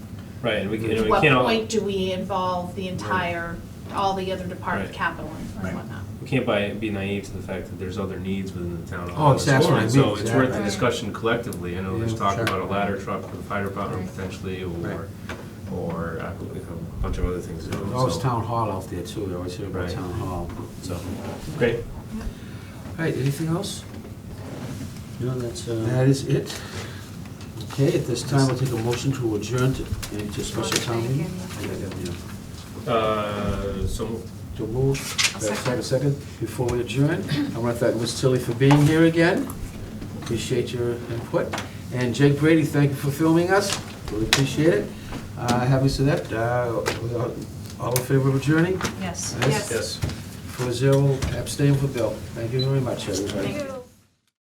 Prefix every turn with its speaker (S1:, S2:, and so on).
S1: Right, and we can, and
S2: To
S1: we
S2: what
S1: can't,
S2: point
S1: all-
S2: do we involve the entire, all the other department
S1: Right.
S2: capital
S3: Right.
S2: and whatnot?
S1: we can't by, be naive to the fact that there's other needs within the town. of
S4: Oh,
S1: Hollis
S4: that's what I
S1: Corner.
S4: mean,
S1: So it's worth the
S4: exactly.
S1: discussion collectively, I know there's
S4: Yeah,
S1: talk
S4: sure.
S1: about a ladder truck for the fire department potentially, or,
S4: Right.
S1: or uh, a bunch of other things. you know,
S4: There's always
S1: so-
S4: Oh, town hall out there too, we always hear about
S1: Right.
S4: town hall, so.
S1: Great,
S4: All right, anything else?
S3: No, that's, uh,
S4: That is it. Okay, at this time, we'll take a motion to adjourn to, into special town meeting. Yeah,
S1: uh, so moved.
S4: yeah. To move, second, second, before we adjourn, I want to thank Ms. Tilly for being here again. Appreciate your input. And Jake Brady, thank you for filming us, really appreciate it. Uh, having said that, uh, we are all in favor of adjourning?
S5: Yes.
S2: Yes.
S1: yes.
S4: Four zero, abstain for Bill. Thank you very much, everybody.
S2: Thank you.